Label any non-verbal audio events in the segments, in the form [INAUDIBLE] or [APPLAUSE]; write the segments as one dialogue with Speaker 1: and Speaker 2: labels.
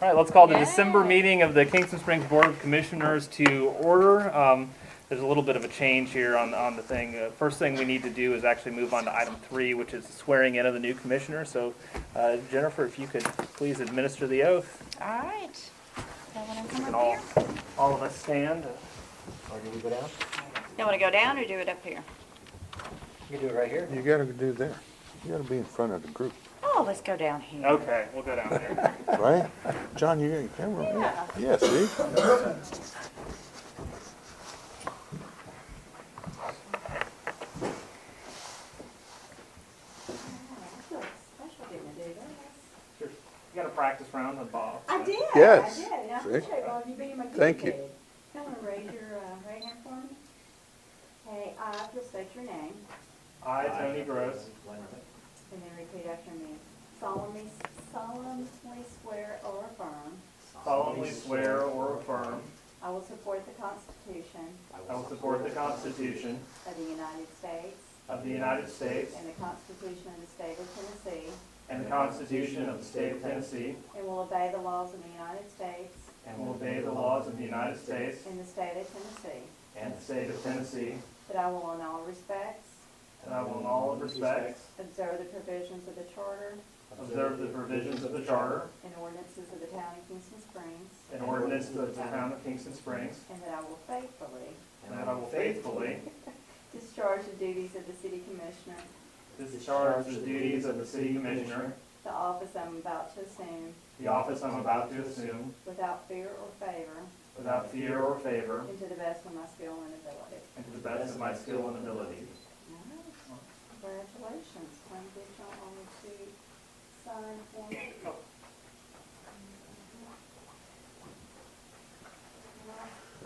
Speaker 1: All right, let's call the
Speaker 2: Yay.
Speaker 1: December meeting of the Kingston Springs Board of Commissioners to order. Um, There's a little bit of a change here on, on the thing. Uh, First thing we need to do is actually move on to item three, which is the swearing in of the new commissioner. So uh, Jennifer, if you could please administer the oath.
Speaker 2: All right. Y'all want to
Speaker 1: We
Speaker 2: come
Speaker 1: can
Speaker 2: up
Speaker 1: all,
Speaker 2: here?
Speaker 1: all of us stand.
Speaker 3: Or do we go down?
Speaker 2: Y'all want to go down or do it up here?
Speaker 3: You can do it right here.
Speaker 4: You gotta do there. You gotta be in front of the group,
Speaker 2: Oh, let's go down here.
Speaker 1: Okay, we'll go down there.
Speaker 4: right? John, you got your camera on?
Speaker 2: Yeah.
Speaker 4: Yeah, see?
Speaker 1: You got a practice round with Bob.
Speaker 5: I did.
Speaker 4: Yes.
Speaker 5: I did. and I
Speaker 4: See?
Speaker 5: appreciate all of you being my guinea
Speaker 4: Thank you.
Speaker 5: pig. Come and raise your uh, right hand for me. Okay, I, just state your name
Speaker 1: I, Tony Gross,
Speaker 5: and then repeat after me. Solemnly, solemnly swear or affirm
Speaker 1: solemnly swear or affirm
Speaker 5: I will support the Constitution
Speaker 1: I will support the Constitution
Speaker 5: of the United States
Speaker 1: of the United States
Speaker 5: and the Constitution of the State of Tennessee
Speaker 1: and the Constitution of the State of Tennessee
Speaker 5: and will obey the laws of the United States
Speaker 1: and will obey the laws of the United States
Speaker 5: and the State of Tennessee.
Speaker 1: and the State of Tennessee,
Speaker 5: That I will in all respects
Speaker 1: and I will in all respects
Speaker 5: observe the provisions of the Charter
Speaker 1: observe the provisions of the Charter
Speaker 5: and ordinances of the town of Kingston Springs.
Speaker 1: and ordinances of the Town of Kingston Springs,
Speaker 5: And that I will faithfully
Speaker 1: and that I will faithfully
Speaker 5: discharge the duties of the city commissioner,
Speaker 1: discharge the duties of the City Commissioner,
Speaker 5: the office I'm about to assume,
Speaker 1: the office I'm about to assume,
Speaker 5: without fear or favor,
Speaker 1: without fear or favor,
Speaker 5: and to the best of my skill and ability.
Speaker 1: and to the best of my skill and ability.
Speaker 5: All right. Congratulations. Come get y'all on to sign for me.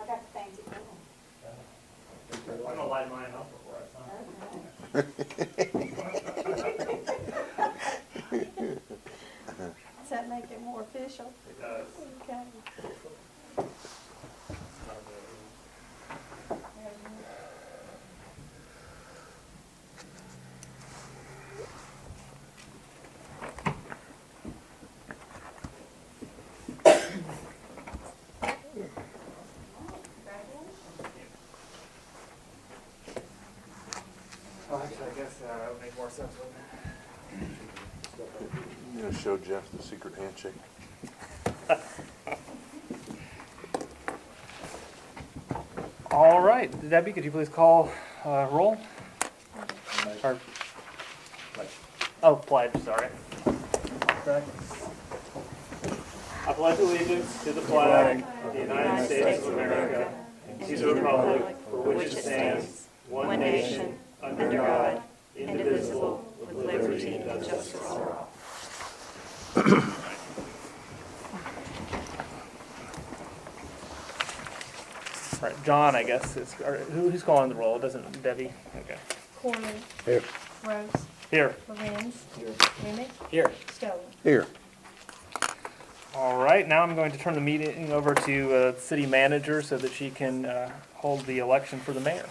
Speaker 5: I got the fancy one.
Speaker 1: I'm gonna light mine up before I sign.
Speaker 5: Okay. Does that make it more official?
Speaker 1: It does.
Speaker 5: Okay.
Speaker 1: uh, Well, actually, I guess uh, that would make more sense, wouldn't it?
Speaker 4: You gonna show Jeff the secret handshake?
Speaker 1: All right, Debbie, could you please call uh, roll? Or- Oh, pledge, sorry. I pledge allegiance to the flag of the United States of America and to the republic for which it stands, one nation, under God, indivisible, with liberty and justice for all. Right, John, I guess, is, or who- who's calling the roll? Doesn't Debbie? Okay.
Speaker 6: Corman.
Speaker 4: Here.
Speaker 6: Rose.
Speaker 1: Here.
Speaker 6: Lorenz. Remick.
Speaker 1: Here.
Speaker 6: Stoller.
Speaker 4: Here.
Speaker 1: All right, now I'm going to turn the meeting over to uh, the city manager so that she can uh, hold the election for the mayor.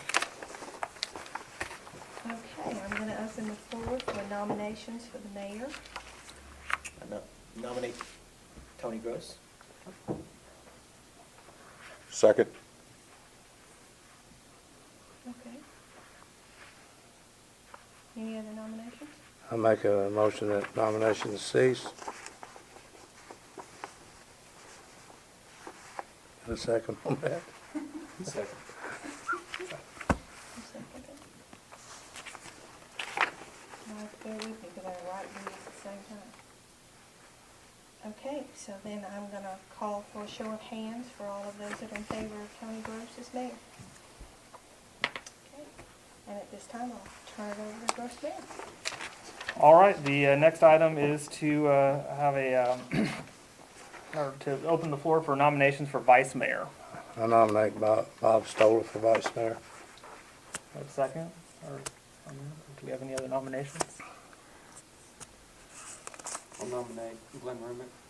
Speaker 6: Okay, I'm going to open the floor for nominations for the mayor.
Speaker 3: Nominate Tony Gross.
Speaker 4: Second.
Speaker 6: Okay. Any other nominations?
Speaker 7: I make a motion that nominations cease. A second on that.
Speaker 3: Second.
Speaker 6: Who seconded it? Now, bear with me, because I write these at the same time. Okay, so then I'm going to call for a show of hands for all of those that are in favor of Tony Gross as mayor. Okay, And at this time, I'll turn it over to Gross Mayor.
Speaker 1: All right, the uh, next item is to uh, have a, um, [CLEARS THROAT] or to open the floor for nominations for vice mayor.
Speaker 7: I nominate Bob Bob Stoller for vice mayor.
Speaker 1: Have a second? Or um, do we have any other nominations?
Speaker 8: I'll nominate Glenn Rumick